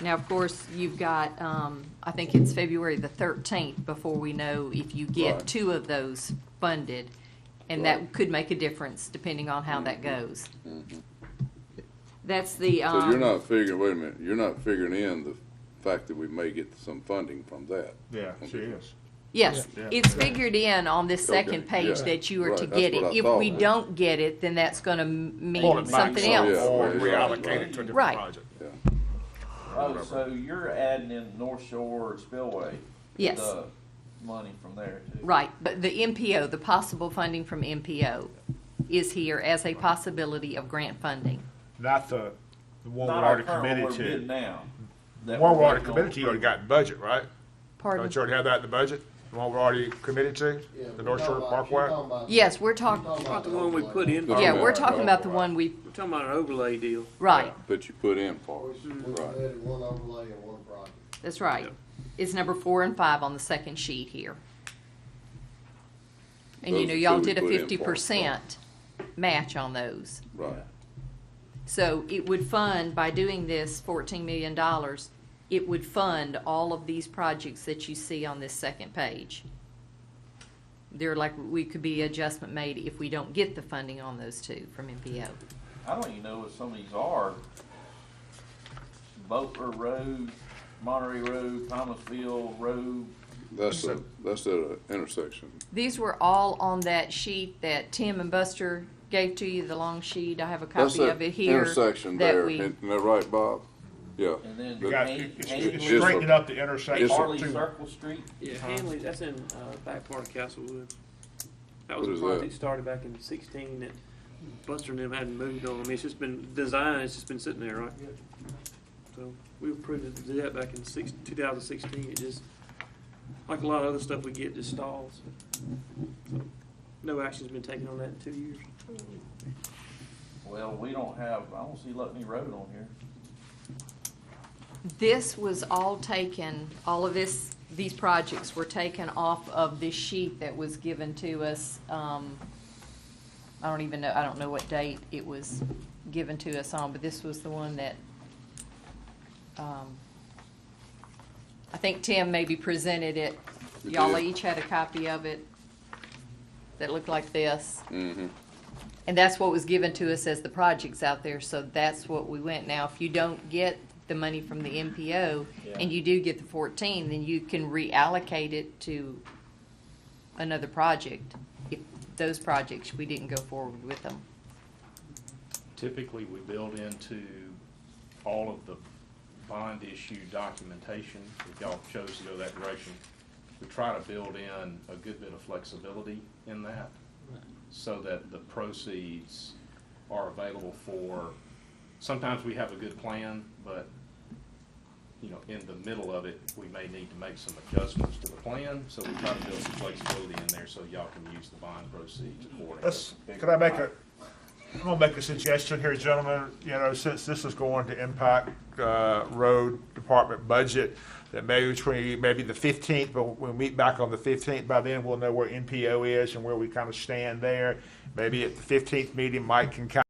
Now, of course, you've got, um, I think it's February the thirteenth before we know if you Right. get two of those funded. And Right. Mm-hmm. that could make a difference depending on how that goes. That's the, um. So you're not figuring, wait a minute, you're not figuring in the fact that we may get some funding from that. Yeah, she is. Yes, Yeah. it's figured in on this Okay, second page yeah. that you are to Right, that's get it. what I If thought. we don't get it, then that's gonna m- Pull mean it back something some, else. Or Oh, Yeah. reallocate it to a Right. different project. Oh, so you're adding in North Shore Spillway? Yes. the Money from there too? Right, but the MPO, the possible funding from MPO is here as a possibility of grant funding. Not the, the one we Not our already current, committed what we're bidding to. now. The that One we we're already working on. committed to, you already got in budget, right? Pardon? Don't you already have that in the budget? The one we're already committed to? The North Shore Parkway? Yes, we're talking, Not the one we put in, No. we're yeah, we're talking about the one we, talking about an overlay deal. right, That you put in for. We it. should, we Right. added one overlay and one project. that's right. It's number four and five on the second sheet here. And you Those know, are y'all two we did a put in for, fifty percent match on those. Right. So it would fund, by doing this fourteen million dollars, it would fund all of these projects that you see on this second page. They're like, we could be adjustment made if we don't get the funding on those two from MPO. I don't even know what some of these are. Boatler Road, Monterey Road, Thomasville Road, That's a, that's a intersection. These were all on that sheet that Tim and Buster gave to you, the long sheet. I have a That's copy that of it here. Intersection that there, we- isn't that right, Bob? Yeah. and then You But- got, Han- it's, it's Just Hanley, right straightening up the intersection Yes, sir. Harley too. Circle Street. Yeah, Hanley, that's in, uh, back part of Castlewood. That What was is a that? project started back in sixteen that Buster and them hadn't moved on. I mean, it's just been designed, it's just been sitting there, right? So, we approved it, did that back in six, two thousand sixteen, it just, like a lot of other stuff we get, just stalls. So, No action's been taken on that in two years. Well, we don't have, I don't see Lutney Road on here. This was all taken, all of this, these projects were taken off of this sheet that was given to us. um, I don't even know, I don't know what date it was given to us on, but this was the one that, um, I think Tim maybe presented it. You Y'all did. each had a copy of it that looked like this. Mm-hmm. And that's what was given to us as the projects out there, so that's what we went. Now, if you don't get the money from the MPO, and you do get the fourteen, then you can reallocate it to another project, if those projects, we didn't go forward with them. Typically, we build into all of the bond issue documentation, if y'all chose to go that direction. We try to build in a good bit of flexibility in that, so that the proceeds are available for, sometimes we have a good plan, but, you know, in the middle of it, we may need to make some adjustments to the plan, so we try to build some flexibility in there so y'all can use the bond proceeds accordingly. Let's, could I make a, I'm gonna make a suggestion here, gentlemen, you know, since this is going to impact, uh, road department budget, that maybe between, maybe the fifteenth, but we'll meet back on the fifteenth, by then we'll know where NPO is and where we kind of stand there. Maybe at the fifteenth meeting, Mike can kind